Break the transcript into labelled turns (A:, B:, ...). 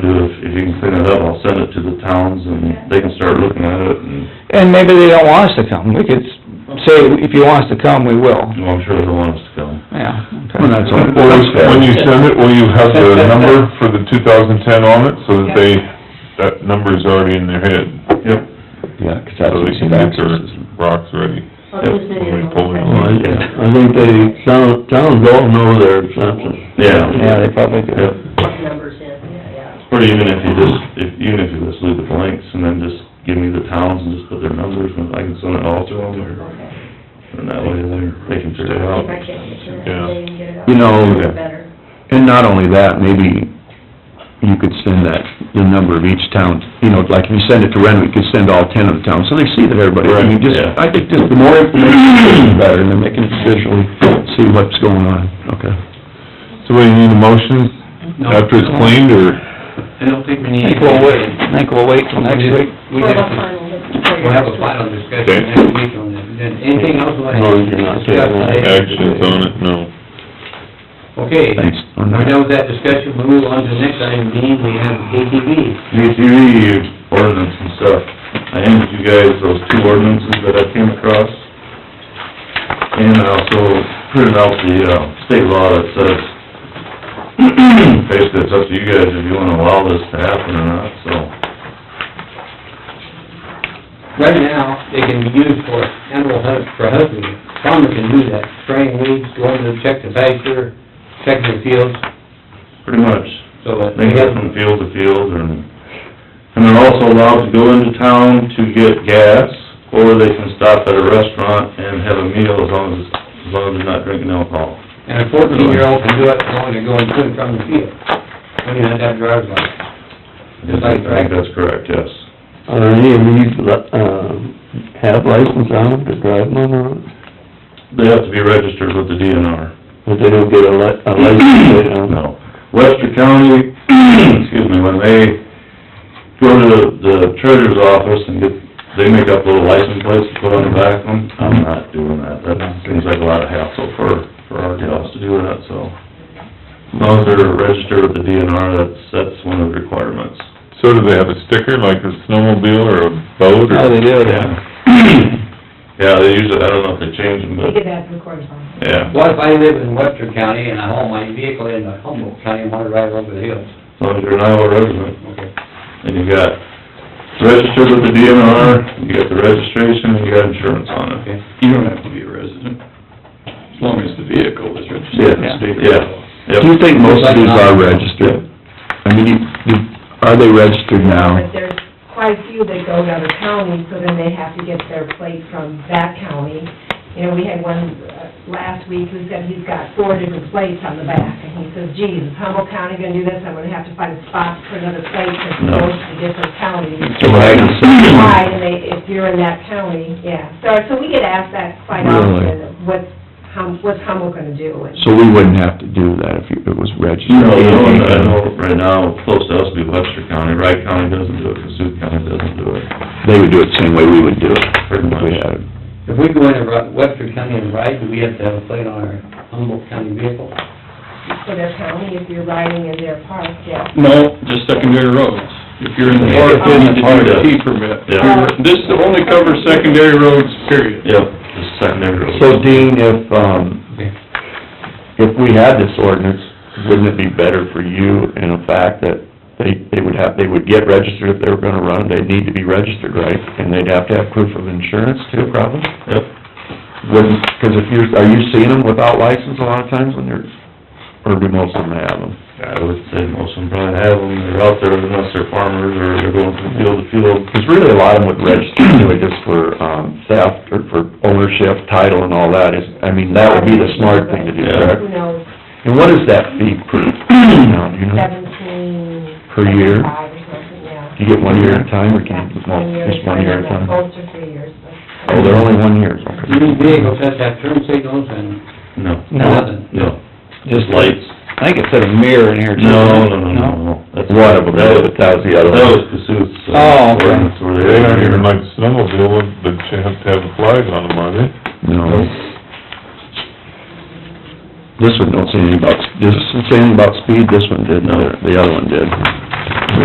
A: If, if you can clean it up, I'll send it to the towns and they can start looking at it and,
B: And maybe they don't want us to come, we could say, if you want us to come, we will,
A: you know, I'm sure they'll want us to come.
B: yeah. okay.
C: Well, that's all.
D: Will you- When you send it, will you have the number for the two thousand ten on it, so that they, that number's already in their head?
A: Yep.
C: Yeah, 'cause that's
D: So
C: what
D: they
C: you
D: can get their rocks ready.
E: I'll just send you a
D: When we pull it
E: little-
C: Well,
D: on.
C: Oh, I I think they, town, towns all know their census.
A: Yeah.
B: Yeah, they probably do.
A: Yep.
E: numbers in, yeah, yeah.
A: Or even if you just, if, even if you just leave the blanks and then just give me the towns and just put their numbers and I can send it all to them or,
E: Okay.
A: and that way they're, they can figure it
E: If
A: out.
E: I can't get to that,
D: Yeah.
E: they can get it out.
C: You know,
E: It's Better.
C: And not only that, maybe you could send that, the number of each town, you know, like if you send it to Renwick, you could send all ten of the towns, so they see that everybody, I mean,
A: Right,
C: just,
A: yeah.
C: I think just the more information, the better, and then they can officially see what's going on, okay?
D: So what, you need a motion after it's cleaned, or?
F: It'll take
B: I
F: me...
B: think we'll wait, I think we'll wait till next week.
F: We
E: We'll have a
F: have,
E: final discussion.
F: we'll have a final
D: Okay.
F: discussion next week on that. Then Anything else we'll have to discuss today?
D: Actions on it, no.
F: Okay,
C: Thanks on
F: we're
C: that.
F: done with that discussion, we move on to the next item, being we have ATV.
A: UTV ordinance and stuff. I handed you guys those two ordinances that I came across. And I also printed out the, uh, state law that says, basically, it's up to you guys if you wanna allow this to happen or not, so.
F: Right now, they can be used for animal hunt, for hunting. Farmer can do that, spraying weeds, going to check the pasture, checking the fields,
A: Pretty much,
F: so that
A: they can
F: they
A: go
F: have
A: from field to field and, and they're also allowed to go into town to get gas, or they can stop at a restaurant and have a meal as long as, as long as they're not drinking alcohol.
F: And a fourteen-year-old can do it, as long as they're going to and from the field, when you have that driver's license.
A: I think that's correct, yes.
C: Are any of these, uh, have license on them to drive them on,
A: They have to be registered with the DNR.
C: but they don't get a li- a
A: No. Webster County, excuse me, when they go to the- the treasurer's office and get, they make up little license plates to put on the back of them, I'm not doing that. That seems like a lot of hassle for, for our jobs to do that, so. As long as they're registered with the DNR, that's, that's one of the requirements.
D: So do they have a sticker, like a snowmobile or a boat, or?
B: Oh, they do, yeah.
A: Yeah, they usually, I don't know if they change them,
E: They
A: but,
E: could have some correspondence.
A: yeah,
F: What if I live in Webster County and I haul my vehicle in Humboldt County and want to drive over the hills?
A: as long as you're an Iowa resident.
F: Okay.
A: And you got registered with the DNR, you got the registration, and you got insurance on it.
F: Okay.
G: You don't have to be a resident, as long as the vehicle is registered in the state. of
A: Yeah,
G: Iowa.
A: yep.
C: Do you think most of these are registered? I mean, you- you- are they registered now?
E: But there's quite a few that go to other counties, so then they have to get their plate from that county. You know, we had one uh, last week who said he's got four different plates on the back, and he says, geez, is Humboldt County gonna do this? I'm gonna have to find a spot for another plate, because it
A: No.
E: goes to different counties.
C: Right.
E: Why, and they, if you're in that county, yeah. So, so we get asked that quite
C: Really?
E: often, what's, Hum- what's Humboldt gonna do? And-
C: So we wouldn't have to do that if it was registered?
A: You know, the one that I know right now, close to us would be Webster County, Wright County doesn't do it, Kasuth County doesn't do it.
C: They would do it the same way we would do it.
A: Pretty much.
C: We had-
F: If we go into Ru- Webster County and ride, do we have to have a plate on our Humboldt County vehicle?
E: for their county if you're riding in their park, yeah.
G: No, just secondary roads. If you're in the park, then you need a T permit.
A: Yeah.
G: This only covers secondary roads, period.
A: Yep, just secondary roads.
C: So Dean, if, um, if we had this ordinance, wouldn't it be better for you in the fact that they, they would have, they would get registered if they were gonna run, they'd need to be registered, right? And they'd have to have proof of insurance too, probably?
A: Yep,
C: Wouldn't, cause if you're, are you seeing them without license a lot of times when they're, or do most of them have them?
A: I would say most of them probably have them, they're out there unless they're farmers or they're going from field to field.
C: Because really, a lot of them would register anyway, just for um theft, or for ownership, title, and all that, is, I mean, that would be the smart thing to do, correct?
E: Who knows,
C: And what is that fee per, now, do you know?
E: seventeen...
C: Per year?
E: Five or something, yeah.
C: Do you get one year at a time, or
E: Yeah,
C: can you, well,
E: one year
C: just one year at a time?
E: Both are three years, but...
C: Oh, they're only one year, okay.
F: These vehicles have to have turn signals and
A: No,
F: nothing.
A: no,
B: Just
A: just lights.
B: I think it said a mirror in here too.
A: No, no, no, no, no. That's-
C: One of them, that was the other
A: That was
C: one.
A: Kasuth's. uh,
B: Oh, okay.
A: ordinance where
D: They don't even like snowmobile, but you have to have a flag on them, are they?
C: No.
A: This one don't say anything about, does it say anything about speed? This one did, the other- the other one did.